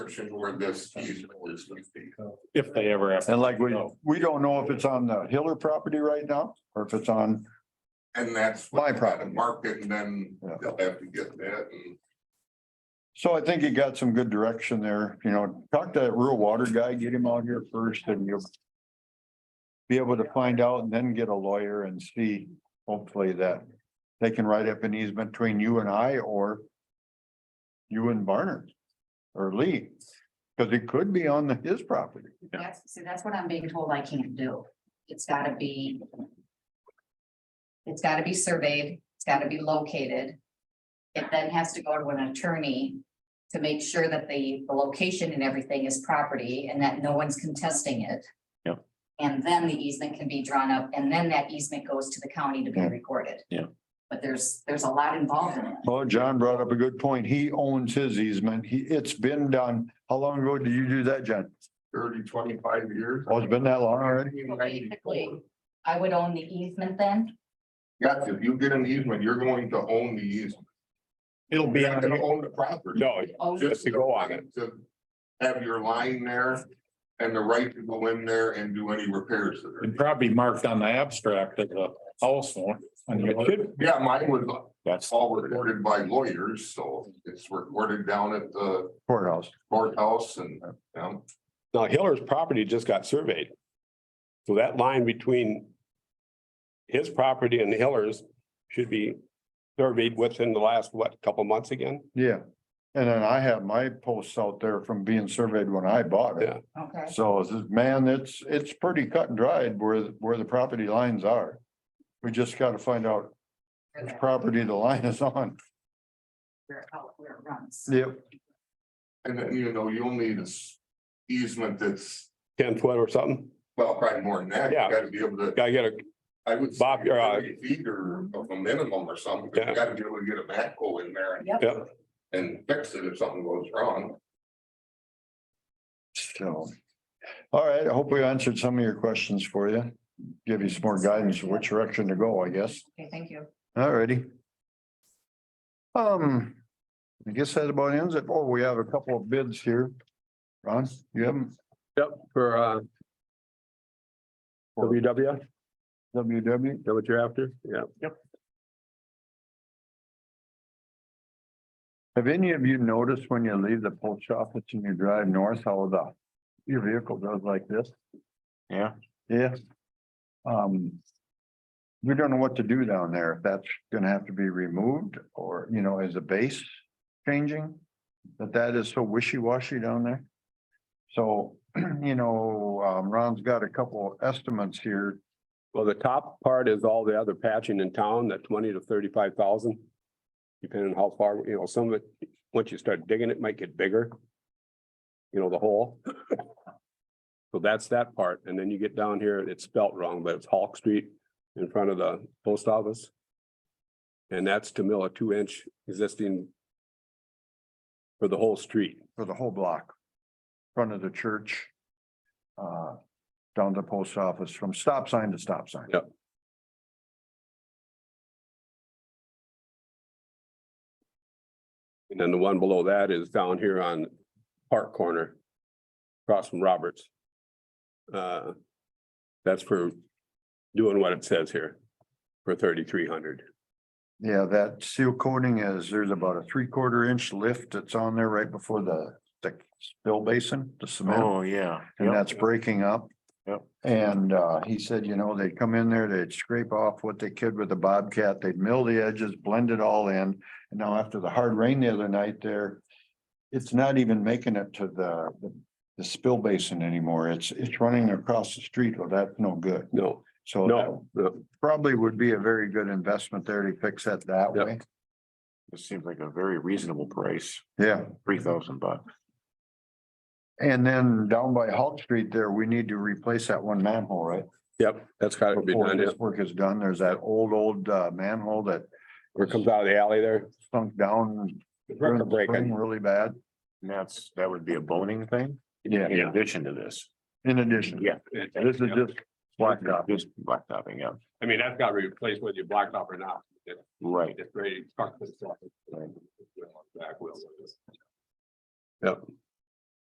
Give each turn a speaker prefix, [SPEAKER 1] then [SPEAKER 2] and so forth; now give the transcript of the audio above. [SPEAKER 1] description where this easement is gonna be.
[SPEAKER 2] if they ever have. to
[SPEAKER 3] And like we,
[SPEAKER 2] go.
[SPEAKER 3] we don't know if it's on the Hiller property right now or if it's on,
[SPEAKER 1] And that's.
[SPEAKER 3] My property.
[SPEAKER 1] Mark it and then
[SPEAKER 3] Yeah.
[SPEAKER 1] they'll have to get that and.
[SPEAKER 3] so I think you got some good direction there, you know, talk to that rural water guy, get him out here first and you'll. Be able to find out and then get a lawyer and see, hopefully that they can write up an easement between you and I or. You and Barnard or Lee, because it could be on the- his property.
[SPEAKER 4] That's, see, that's what I'm being told I can't do. It's gotta be. It's gotta be surveyed, it's gotta be located. It then has to go to an attorney to make sure that the, the location and everything is property and that no one's contesting it.
[SPEAKER 2] Yep.
[SPEAKER 4] And then the easement can be drawn up and then that easement goes to the county to be
[SPEAKER 3] Yeah.
[SPEAKER 4] recorded.
[SPEAKER 2] Yeah.
[SPEAKER 4] But there's, there's a lot involved in it.
[SPEAKER 3] Well, John brought up a good point. He owns his easement. He, it's been done. How long ago did you do that, John?
[SPEAKER 1] Thirty, twenty-five years.
[SPEAKER 3] Oh, it's been that long already?
[SPEAKER 1] Basically.
[SPEAKER 4] I would own the easement then,
[SPEAKER 1] Got to, you get an easement, you're going to own the easement.
[SPEAKER 2] It'll be
[SPEAKER 1] You're not
[SPEAKER 2] on,
[SPEAKER 1] gonna
[SPEAKER 2] your-
[SPEAKER 1] own the property.
[SPEAKER 2] no,
[SPEAKER 4] own the
[SPEAKER 2] Just to go on it.
[SPEAKER 1] To have your line there and the right to go in there and do any repairs that are.
[SPEAKER 2] it'd probably be marked on the abstract of the house one. It should-
[SPEAKER 1] Yeah, mine was
[SPEAKER 2] That's,
[SPEAKER 1] all recorded by lawyers, so it's recorded down at the
[SPEAKER 3] Courthouse.
[SPEAKER 1] courthouse and, um,
[SPEAKER 5] Now Hiller's property just got surveyed. So that line between his property and Hiller's should be surveyed within the last, what, couple months again?
[SPEAKER 3] Yeah. And then I have my posts out there from being surveyed when I bought it.
[SPEAKER 5] Yeah.
[SPEAKER 4] okay?
[SPEAKER 3] So it's just, man, it's, it's pretty cut and dried where, where the property lines are. We just gotta find out
[SPEAKER 4] for
[SPEAKER 3] which
[SPEAKER 4] that,
[SPEAKER 3] property the line is on.
[SPEAKER 4] Where, how- where it runs.
[SPEAKER 3] Yep.
[SPEAKER 1] And then, you know, you'll need a s- easement that's,
[SPEAKER 5] Ten foot or something?
[SPEAKER 1] well, probably more than that, you
[SPEAKER 5] Yeah.
[SPEAKER 1] gotta be able to,
[SPEAKER 5] Gotta get a,
[SPEAKER 1] I would. say
[SPEAKER 5] Bob, you're, uh,
[SPEAKER 1] 30 Feet or of a minimum or something, but you
[SPEAKER 5] Yeah.
[SPEAKER 1] gotta be able to get a backhoe in there and-
[SPEAKER 4] Yep.
[SPEAKER 5] yeah,
[SPEAKER 1] and fix it if something goes wrong.
[SPEAKER 3] So. All right, I hope we answered some of your questions for you. Give you some more guidance which direction to go, I guess.
[SPEAKER 4] Okay, thank you.
[SPEAKER 3] Alrighty. Um, I guess that about ends it. Oh, we have a couple of bids here. Ron, you have them?
[SPEAKER 6] Yep, for uh.
[SPEAKER 3] For-
[SPEAKER 6] WW, is
[SPEAKER 3] WW?
[SPEAKER 6] that what you're after? Yeah.
[SPEAKER 3] Have any of you noticed when you leave the post office and you drive north, how the, your vehicle goes like this?
[SPEAKER 2] Yeah.
[SPEAKER 3] Yeah. Um. We don't know what to do down there. If that's gonna have to be removed or, you know, is the base changing? But that is so wishy-washy down there. So, you know, um, Ron's got a couple of estimates here.
[SPEAKER 5] Well, the top part is all the other patching in town, that twenty to thirty-five thousand. Depending on how far, you know, some of it, once you start digging, it might get bigger. You know, the hole. So that's that part. And then you get down here, it's spelt wrong, but it's Hawk Street in front of the post office. And that's to mill a two-inch existing for the whole street.
[SPEAKER 3] for the whole block. Front of the church. Uh, down to the post office from stop sign to stop sign.
[SPEAKER 5] Yep. And then the one below that is down here on Park Corner. Across from Roberts. Uh. That's for doing what it says here. For thirty-three hundred.
[SPEAKER 3] Yeah, that seal coating is, there's about a three quarter inch lift that's on there right before the, the spill basin, the cement.
[SPEAKER 2] oh, yeah.
[SPEAKER 3] And
[SPEAKER 2] Yep.
[SPEAKER 3] that's breaking up.
[SPEAKER 2] Yep.
[SPEAKER 3] And, uh, he said, you know, they'd come in there, they'd scrape off what they could with the Bobcat, they'd mill the edges, blend it all in. And now after the hard rain the other night there, it's not even making it to the, the- the spill basin anymore. It's, it's running across the street. Well, that's no good.
[SPEAKER 5] No,
[SPEAKER 3] So Oh, that
[SPEAKER 5] no, no,
[SPEAKER 3] probably would be a very good investment there to fix it that
[SPEAKER 5] Yep.
[SPEAKER 3] way.
[SPEAKER 2] It seems like a very reasonable price,
[SPEAKER 3] Yeah.
[SPEAKER 2] three thousand bucks.
[SPEAKER 3] And then down by Hulk Street there, we need to replace that one manhole, right?
[SPEAKER 5] yep, that's gotta be
[SPEAKER 3] Before
[SPEAKER 5] done.
[SPEAKER 3] this work is done, there's that old, old uh, manhole that
[SPEAKER 5] Where it comes out of the alley there.
[SPEAKER 3] sunk down during
[SPEAKER 5] Record
[SPEAKER 3] the spring
[SPEAKER 5] breaking.
[SPEAKER 3] really bad.
[SPEAKER 2] And that's, that would be a boning thing?
[SPEAKER 3] Yeah.
[SPEAKER 2] In addition to this.
[SPEAKER 3] In addition, this is just blacktop.
[SPEAKER 2] Just blacktopping, yeah,
[SPEAKER 5] I mean, that's gotta be replaced whether you blacktop or not.
[SPEAKER 2] right.
[SPEAKER 5] It's ready to truck this off.
[SPEAKER 2] Right.
[SPEAKER 5] Back wheels. Yep,